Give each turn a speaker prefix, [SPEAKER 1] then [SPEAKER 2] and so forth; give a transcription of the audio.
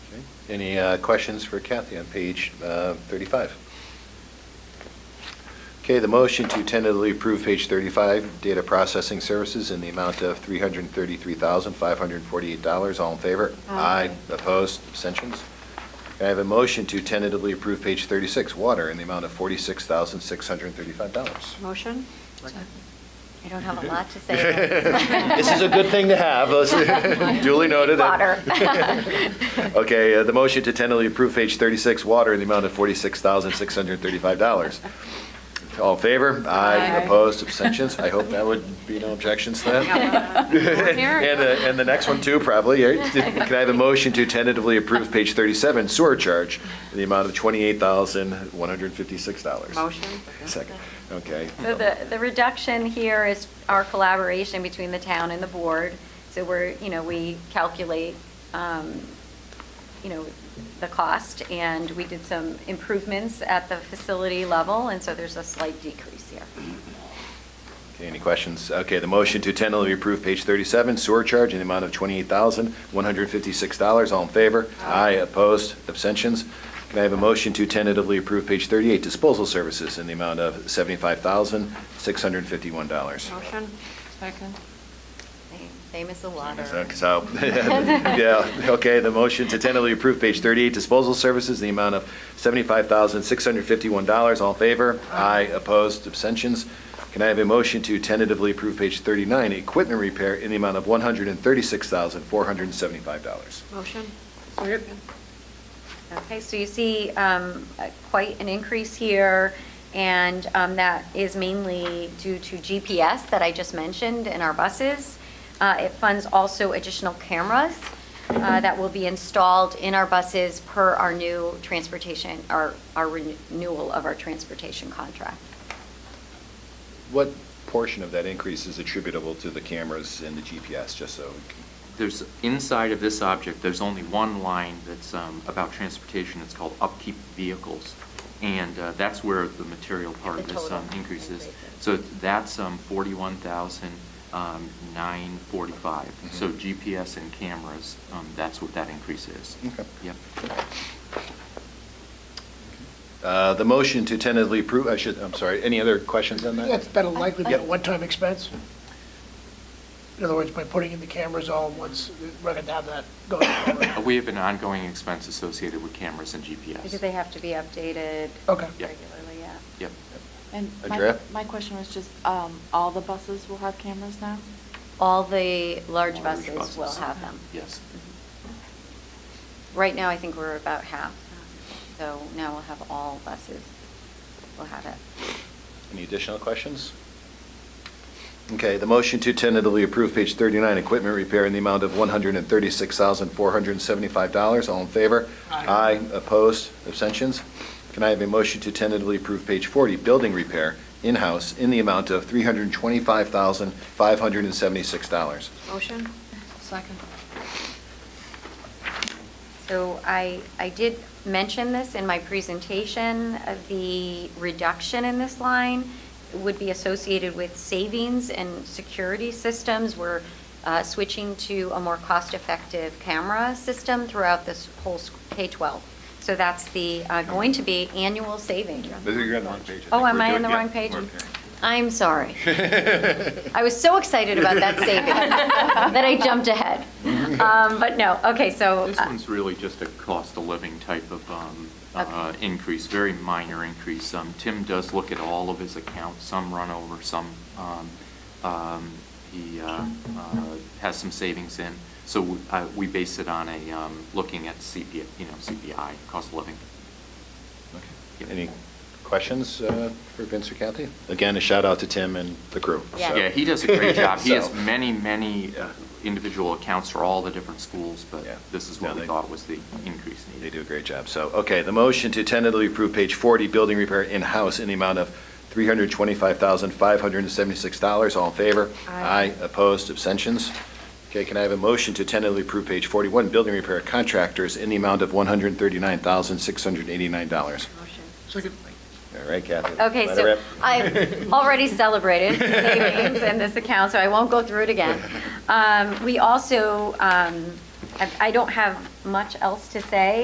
[SPEAKER 1] Any uh, questions for Kathy on page uh, 35? Okay, the motion to tentatively approve page 35, data processing services in the amount of $333,548. All in favor?
[SPEAKER 2] Aye.
[SPEAKER 1] Opposed? Abstentions? Can I have a motion to tentatively approve page 36, water, in the amount of $46,635?
[SPEAKER 2] Motion?
[SPEAKER 3] I don't have a lot to say. about
[SPEAKER 1] This is a good thing to have. Duly noted.
[SPEAKER 3] Water.
[SPEAKER 1] Okay, uh, the motion to tentatively approve page 36, water, in the amount of $46,635. All in favor?
[SPEAKER 2] Aye.
[SPEAKER 1] Opposed, abstentions? I hope that would be no objections to that. And the, and the next one too, probably. right? Can I have a motion to tentatively approve page 37, sewer charge, in the amount of $28,156?
[SPEAKER 2] Motion?
[SPEAKER 1] Second, okay.
[SPEAKER 3] So the, the reduction here is our collaboration between the town and the board. So we're, you know, we calculate, um, you know, the cost, and we did some improvements at the facility level, and so there's a slight decrease here.
[SPEAKER 1] Okay, any questions? Okay, the motion to tentatively approve page 37, sewer charge in the amount of $28,156. All in favor? Aye. Opposed? Abstentions? Can I have a motion to tentatively approve page 38, disposal services in the amount of $75,651?
[SPEAKER 2] Motion? Second.
[SPEAKER 3] Same- Same as the water.
[SPEAKER 1] So, yeah, okay, the motion to tentatively approve page 38, disposal services in the amount of $75,651. All in favor? Aye. Opposed? Abstentions? Can I have a motion to tentatively approve page 39, equipment repair in the amount of $136,475?
[SPEAKER 2] Motion?
[SPEAKER 3] Okay, so you see um, uh, quite an increase here, and um, that is mainly due to GPS that I just mentioned in our buses. Uh, It funds also additional cameras uh, that will be installed in our buses per our new transportation, our our renewal of our transportation contract.
[SPEAKER 1] What portion of that increase is attributable to the cameras and the GPS, just so? we can-
[SPEAKER 4] There's, inside of this object, there's only one line that's um, about transportation, it's called upkeep vehicles. And uh, that's where the material part of
[SPEAKER 3] The
[SPEAKER 4] this um,
[SPEAKER 3] total
[SPEAKER 4] increase is.
[SPEAKER 3] increase is.
[SPEAKER 4] So that's um, 41,945. So
[SPEAKER 1] Mhm.
[SPEAKER 4] GPS and cameras, um, that's what that increase is.
[SPEAKER 1] Okay.
[SPEAKER 4] Yep.
[SPEAKER 1] Uh, The motion to tentatively approve, I should, I'm sorry, any other questions on that?
[SPEAKER 5] That's better likely to be
[SPEAKER 1] Yep.
[SPEAKER 5] a one-time expense. In other words, by putting in the cameras all at once, we're going to have that going
[SPEAKER 4] Uh,
[SPEAKER 5] forward.
[SPEAKER 4] We have an ongoing expense associated with cameras and GPS.
[SPEAKER 3] Because they have to be updated
[SPEAKER 5] Okay.
[SPEAKER 4] Yeah.
[SPEAKER 3] regularly, yeah.
[SPEAKER 4] Yep.
[SPEAKER 6] And my,
[SPEAKER 1] Andrea?
[SPEAKER 6] my question was just, um, all the buses will have cameras now?
[SPEAKER 3] All the large
[SPEAKER 4] Large
[SPEAKER 3] buses will
[SPEAKER 4] buses.
[SPEAKER 3] have them. Mm-hmm.
[SPEAKER 4] Yes.
[SPEAKER 3] Right now, I think we're about half, so now we'll have all buses will have it.
[SPEAKER 1] Any additional questions? Okay, the motion to tentatively approve page 39, equipment repair in the amount of $136,475. All in favor?
[SPEAKER 5] Aye.
[SPEAKER 1] opposed, abstentions? Can I have a motion to tentatively approve page 40, building repair, in-house, in the amount of $325,576?
[SPEAKER 2] Motion? Second.
[SPEAKER 3] So I, I did mention this in my presentation, uh, the reduction in this line would be associated with savings and security systems. We're uh, switching to a more cost-effective camera system throughout this whole s- K-12. So that's the, uh, going to be annual savings.
[SPEAKER 1] You're on the wrong page.
[SPEAKER 3] Oh, am I on the wrong page? I'm sorry. I was so excited about that saving that I jumped ahead. Um, But no, okay, so.
[SPEAKER 4] This
[SPEAKER 3] uh,
[SPEAKER 4] one's really just a cost of living type of um,
[SPEAKER 3] Okay.
[SPEAKER 4] uh, increase, very minor increase. Um, Tim does look at all of his accounts, some run over, some, um, um, he uh, uh, has some savings in. So we- uh, we base it on a, um, looking at CPI, you know, CPI, cost of living.
[SPEAKER 1] Any questions uh, for Vince or Kathy? Again, a shout out to Tim and the crew. so.
[SPEAKER 3] Yeah.
[SPEAKER 4] Yeah, he does a great job. He has
[SPEAKER 1] So-
[SPEAKER 4] many, many uh, individual accounts for all the different schools, but
[SPEAKER 1] Yeah.
[SPEAKER 4] this is
[SPEAKER 1] No,
[SPEAKER 4] what we
[SPEAKER 1] they-
[SPEAKER 4] thought was the increase needed.
[SPEAKER 1] They do a great job. So, okay, the motion to tentatively approve page 40, building repair in-house in the amount of $325,576. All in favor?
[SPEAKER 2] Aye.
[SPEAKER 1] Opposed? Abstentions? Okay, can I have a motion to tentatively approve page 41, building repair contractors in the amount of $139,689?
[SPEAKER 2] Motion.
[SPEAKER 5] Second.
[SPEAKER 1] All right, Kathy.
[SPEAKER 3] Okay,
[SPEAKER 1] let it
[SPEAKER 3] so
[SPEAKER 1] rip.
[SPEAKER 3] I've already celebrated savings in this account, so I won't go through it again. Um, We also, um, I I don't have much else to say